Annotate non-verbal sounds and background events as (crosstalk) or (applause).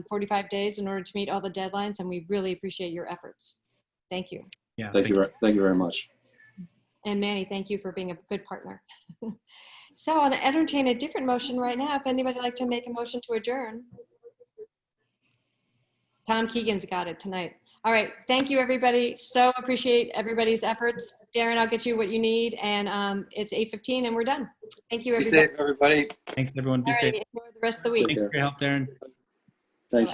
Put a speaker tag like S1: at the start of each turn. S1: 45 days in order to meet all the deadlines, and we really appreciate your efforts. Thank you.
S2: Yeah.
S3: Thank you, ver- thank you very much.
S1: And Manny, thank you for being a good partner. (laughs) So I'll entertain a different motion right now. If anybody would like to make a motion to adjourn. Tom Keegan's got it tonight. All right, thank you, everybody. So appreciate everybody's efforts. Darren, I'll get you what you need, and um, it's 8:15 and we're done. Thank you,
S4: Be
S1: everybody.
S4: safe, everybody.
S2: Thanks, everyone. Be
S1: All right,
S2: safe.
S1: enjoy the rest of the
S3: Take
S1: week.
S2: Thanks
S3: care.
S2: for your help, Darren.